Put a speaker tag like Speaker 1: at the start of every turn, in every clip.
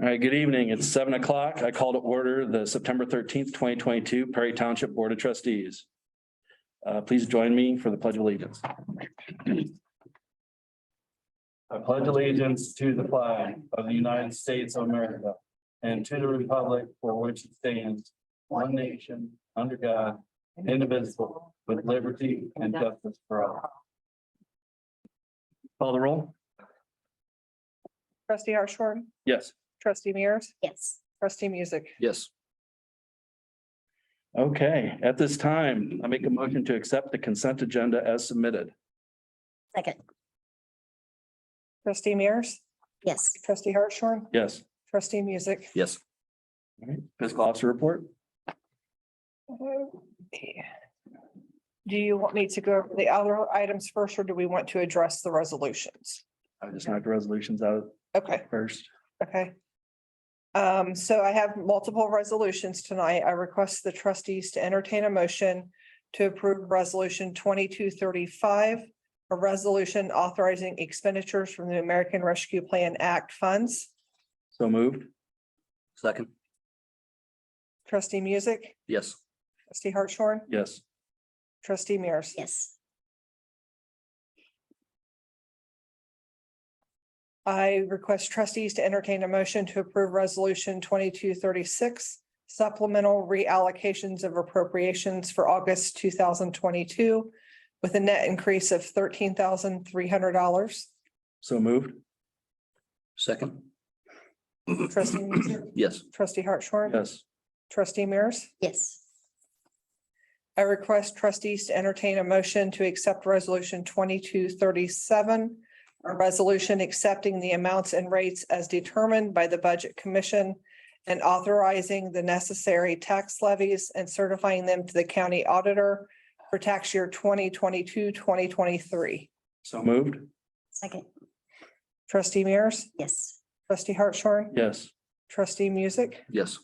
Speaker 1: All right, good evening. It's seven o'clock. I call to order the September thirteenth, twenty twenty-two Perry Township Board of Trustees. Uh, please join me for the pledge of allegiance. I pledge allegiance to the flag of the United States of America and to the republic for which it stands, one nation, under God, indivisible, with liberty and justice for all. Call the roll?
Speaker 2: Trustee Hartshorn,
Speaker 1: Yes.
Speaker 2: trustee Mears,
Speaker 3: Yes.
Speaker 2: trustee Music,
Speaker 1: Yes. Okay, at this time, I make a motion to accept the consent agenda as submitted.
Speaker 3: Second.
Speaker 2: trustee Mears,
Speaker 3: Yes.
Speaker 2: trustee Hartshorn,
Speaker 1: Yes.
Speaker 2: trustee Music.
Speaker 1: Yes. All right, fiscal officer report?
Speaker 2: Do you want me to go over the other items first, or do we want to address the resolutions?
Speaker 1: I just knocked the resolutions out
Speaker 2: Okay.
Speaker 1: first.
Speaker 2: Okay. Um, so I have multiple resolutions tonight. I request the trustees to entertain a motion to approve resolution twenty-two thirty-five, a resolution authorizing expenditures from the American Rescue Plan Act funds.
Speaker 1: So moved?
Speaker 4: Second,
Speaker 2: Trustee Music,
Speaker 4: yes,
Speaker 2: trustee Hartshorn,
Speaker 1: Yes.
Speaker 2: trustee Mears.
Speaker 3: Yes.
Speaker 2: I request trustees to entertain a motion to approve resolution twenty-two thirty-six supplemental reallocations of appropriations for August two thousand twenty-two with a net increase of thirteen thousand three hundred dollars.
Speaker 1: So moved?
Speaker 4: second,
Speaker 2: Trustee, Mears?
Speaker 4: yes,
Speaker 2: trustee Hartshorn,
Speaker 1: Yes.
Speaker 2: trustee Mears.
Speaker 3: Yes.
Speaker 2: I request trustees to entertain a motion to accept resolution twenty-two thirty-seven, a resolution accepting the amounts and rates as determined by the Budget Commission and authorizing the necessary tax levies and certifying them to the county auditor for tax year 2022-2023.
Speaker 1: So moved?
Speaker 3: Second.
Speaker 2: Trustee Mears,
Speaker 3: Yes.
Speaker 2: trustee Hartshorn,
Speaker 1: Yes.
Speaker 2: trustee Music.
Speaker 4: yes,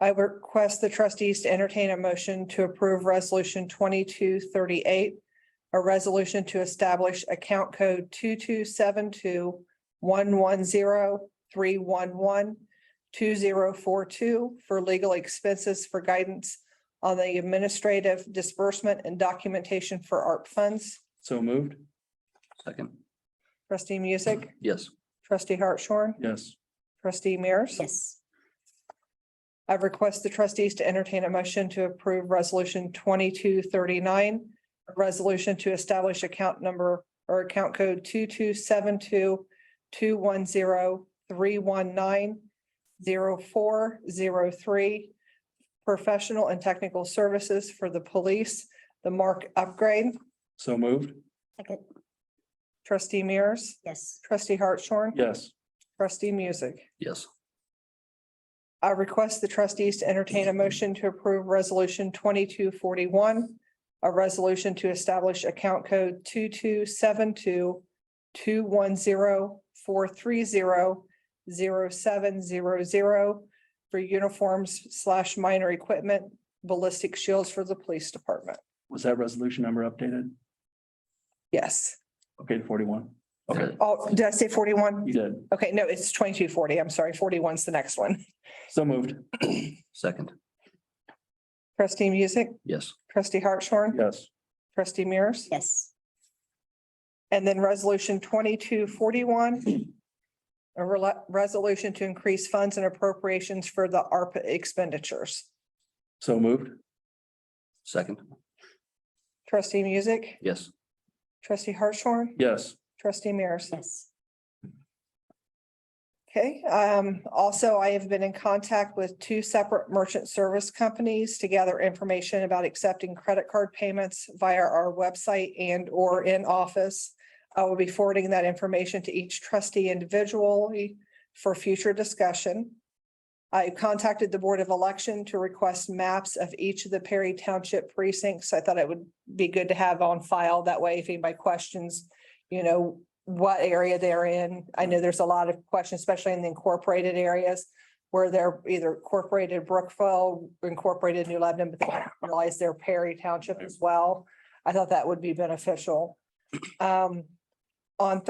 Speaker 2: I request the trustees to entertain a motion to approve resolution twenty-two thirty-eight. A resolution to establish account code two-two-seven-two one-one-zero-three-one-one-two-zero-four-two for legal expenses for guidance on the administrative disbursement and documentation for ARP funds.
Speaker 1: So moved?
Speaker 4: second,
Speaker 2: Trustee Music,
Speaker 4: yes,
Speaker 2: trustee Hartshorn,
Speaker 1: Yes.
Speaker 2: trustee Mears.
Speaker 3: Yes.
Speaker 2: I request the trustees to entertain a motion to approve resolution twenty-two thirty-nine. A resolution to establish account number or account code two-two-seven-two two-one-zero-three-one-nine-zero-four-zero-three. Professional and technical services for the police, the mark upgrade,
Speaker 1: So moved?
Speaker 3: Second.
Speaker 2: trustee Mears,
Speaker 3: Yes.
Speaker 2: trustee Hartshorn,
Speaker 1: Yes.
Speaker 2: trustee Music.
Speaker 4: yes,
Speaker 2: I request the trustees to entertain a motion to approve resolution twenty-two forty-one. A resolution to establish account code two-two-seven-two two-one-zero-four-three-zero-zero-seven-zero-zero for uniforms slash minor equipment, ballistic shields for the police department.
Speaker 1: Was that resolution number updated?
Speaker 2: Yes.
Speaker 1: Okay, forty-one. Okay,
Speaker 2: Oh, did I say forty-one?
Speaker 1: you did.
Speaker 2: Okay, no, it's twenty-two forty. I'm sorry. 41 is the next one.
Speaker 1: So moved?
Speaker 4: second,
Speaker 2: Trustee Music,
Speaker 4: yes,
Speaker 2: trustee Hartshorn,
Speaker 1: Yes.
Speaker 2: trustee Mears.
Speaker 3: Yes.
Speaker 2: And then resolution twenty-two forty-one. A rela- resolution to increase funds and appropriations for the ARPA expenditures.
Speaker 1: So moved?
Speaker 4: second,
Speaker 2: Trustee Music,
Speaker 4: yes,
Speaker 2: trustee Hartshorn,
Speaker 1: Yes.
Speaker 2: trustee Mears.
Speaker 3: Yes.
Speaker 2: Okay, um, also I have been in contact with two separate merchant service companies to gather information about accepting credit card payments via our website and or in office. I will be forwarding that information to each trustee individually for future discussion. I contacted the Board of Election to request maps of each of the Perry Township precincts. I thought it would be good to have on file. That way, if anybody questions, you know, what area they're in. I know there's a lot of questions, especially in the incorporated areas where they're either incorporated Brookville, incorporated New Lebanon, but they don't realize they're Perry Township as well. I thought that would be beneficial. Um, on